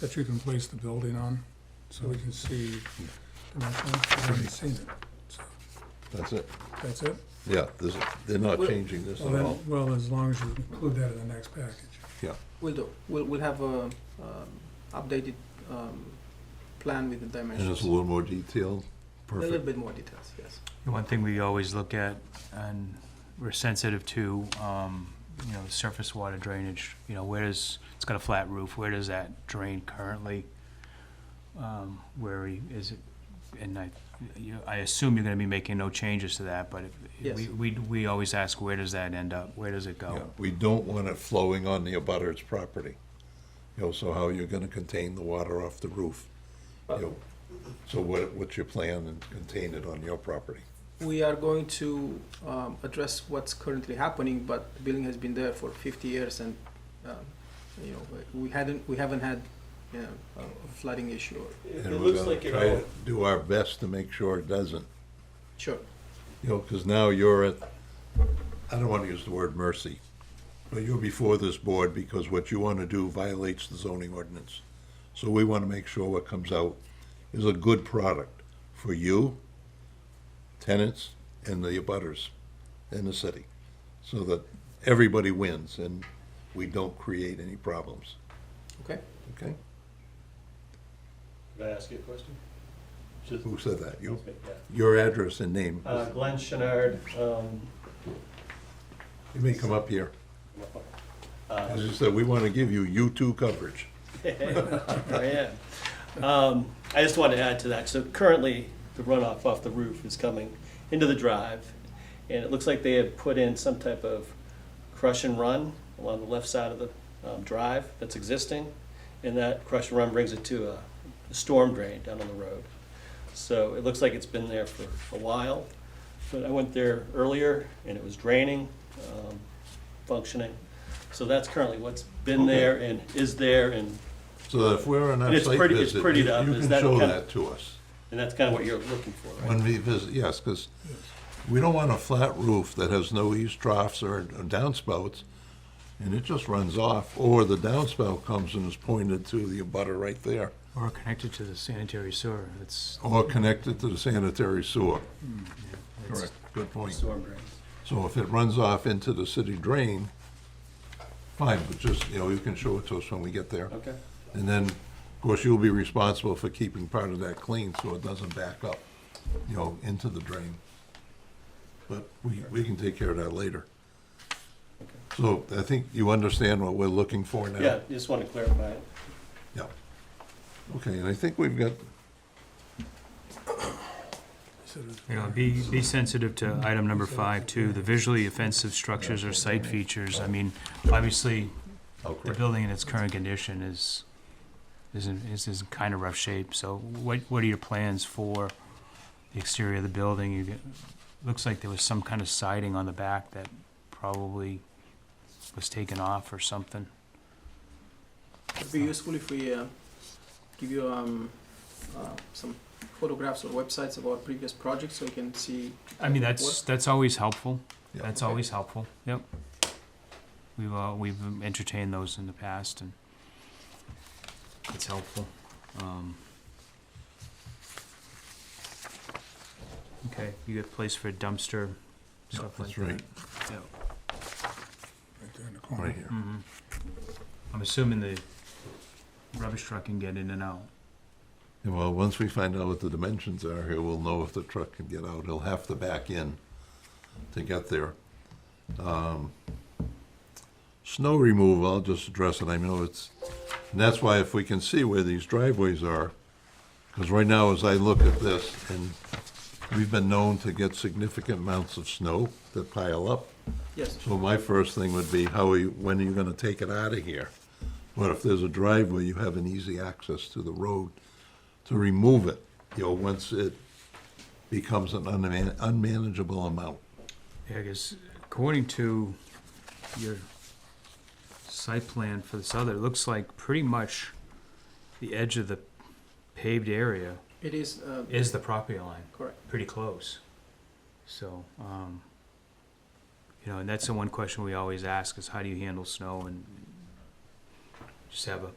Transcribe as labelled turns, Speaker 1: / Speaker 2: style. Speaker 1: that you can place the building on, so we can see dimensional, I haven't seen it, so,
Speaker 2: That's it.
Speaker 1: that's it?
Speaker 2: Yeah, this, they're not
Speaker 3: Well-
Speaker 2: changing this
Speaker 1: Well,
Speaker 2: at all.
Speaker 1: then, well, as long as you include that in the next package.
Speaker 2: Yeah,
Speaker 3: We'll do. We'll, we'll have a um, updated um, plan with the dimensions.
Speaker 2: and it's a little more detailed.
Speaker 3: A little
Speaker 2: Perfect.
Speaker 3: bit more details, yes.
Speaker 4: The One thing we always look at, and we're sensitive to, um, you know, surface water drainage, you know, where does, it's got a flat roof, where does that drain currently? Um, Where he- is it, and I, you- I assume you're gonna be making no changes to that, but if-
Speaker 3: Yes.
Speaker 4: we, we, we always ask, where does that end up, where does it
Speaker 2: Yeah,
Speaker 4: go?
Speaker 2: we don't want it flowing on the abutter's property. You know, so how you're gonna contain the water off the roof? You know, so what, what's your plan and contain it on your property?
Speaker 3: We are going to um, address what's currently happening, but the building has been there for 50 years, and um, you know we hadn't we haven't had you know, a flooding issue. Or,
Speaker 5: It,
Speaker 2: And
Speaker 5: it
Speaker 2: we're
Speaker 5: looks
Speaker 2: gonna
Speaker 5: like it
Speaker 2: try
Speaker 5: all,
Speaker 2: to Do our best to make sure it doesn't,
Speaker 3: sure.
Speaker 2: you know, because now you're at, I don't wanna use the word mercy, but you're before this board because what you wanna do violates the zoning ordinance. So we wanna make sure what comes out is a good product for you, tenants, and the abutters in the city, so that everybody wins and we don't create any problems,
Speaker 3: Okay.
Speaker 2: okay?
Speaker 5: did I ask you a question? Just-
Speaker 2: Who said that? You,
Speaker 5: Okay, yeah.
Speaker 2: your address and name.
Speaker 5: Uh, Glenn Chenard, um,
Speaker 2: You may come up here.
Speaker 5: uh,
Speaker 2: As you said, we want to give you U2 coverage.
Speaker 5: I am. Um, I just wanted to add to that, so currently, the runoff off the roof is coming into the drive, and it looks like they have put in some type of crush and run along the left side of the um, drive that's existing, and that crush and run brings it to a storm drain down on the road. So it looks like it's been there for a while, but I went there earlier, and it was draining, um, functioning. So that's currently what's been there and is there, and
Speaker 2: So that if we're on
Speaker 5: And
Speaker 2: our
Speaker 5: it's
Speaker 2: site
Speaker 5: pretty- it's
Speaker 2: visit, you
Speaker 5: prettied up.
Speaker 2: you
Speaker 5: Is
Speaker 2: can
Speaker 5: that
Speaker 2: show
Speaker 5: kind of-
Speaker 2: that to us.
Speaker 5: And that's kind of what you're looking for, right?
Speaker 2: When we visit, yes, because we don't want a flat roof that has no eaves troughs or downspouts, and it just runs off, or the downspout comes and is pointed to the abutter right there,
Speaker 4: Or connected to the sanitary sewer, it's,
Speaker 2: or connected to the sanitary sewer.
Speaker 4: it's-
Speaker 2: Correct, good point.
Speaker 5: Storm drains.
Speaker 2: So if it runs off into the city drain, fine, but just, you know, you can show it to us when we get there.
Speaker 5: Okay.
Speaker 2: And then, of course, you'll be responsible for keeping part of that clean so it doesn't back up, you know, into the drain. But we, we can take care of that later. So I think you understand what we're looking for now?
Speaker 5: Yeah, just want to clarify it.
Speaker 2: Yeah. Okay, and I think we've got,
Speaker 1: So it-
Speaker 4: You know, be, be sensitive to item number five, too, the visually offensive structures or site features. I mean, obviously,
Speaker 2: oh,
Speaker 4: the
Speaker 2: correct.
Speaker 4: building in its current condition is, is in, is in kind of rough shape. So what, what are your plans for the exterior of the building? You get, looks like there was some kind of siding on the back that probably was taken off or something.
Speaker 3: It'd be useful if we uh, give you um, uh, some photographs or websites of our previous projects, so you can see.
Speaker 4: I mean, that's, that's always helpful.
Speaker 2: Yeah.
Speaker 4: That's
Speaker 3: Okay.
Speaker 4: always helpful, yep. We've, uh, we've entertained those in the past and it's helpful. Um, Okay, you get place for a dumpster,
Speaker 2: Yeah,
Speaker 4: stuff like
Speaker 2: That's
Speaker 4: that.
Speaker 2: right,
Speaker 4: Yep.
Speaker 1: Right there in the
Speaker 2: right
Speaker 1: corner.
Speaker 2: here.
Speaker 4: Mhm. I'm assuming the rubbish truck can get in and out.
Speaker 2: Yeah, Well, once we find out what the dimensions are here, we'll know if the truck can get out. He'll have to back in to get there. Um, Snow removal, I'll just address it. I know it's, and that's why if we can see where these driveways are, because right now, as I look at this, and we've been known to get significant amounts of snow that pile up.
Speaker 3: Yes.
Speaker 2: So my first thing would be, how are you, when are you gonna take it out of here? But if there's a driveway, you have an easy access to the road to remove it, you know, once it becomes an unman- unmanageable amount.
Speaker 4: Yeah, I guess according to your site plan for this other, it looks like pretty much the edge of the paved area
Speaker 3: It is. Uh,
Speaker 4: is the property line,
Speaker 3: correct.
Speaker 4: pretty close. So, um, you know, and that's the one question we always ask is how do you handle snow and just have a,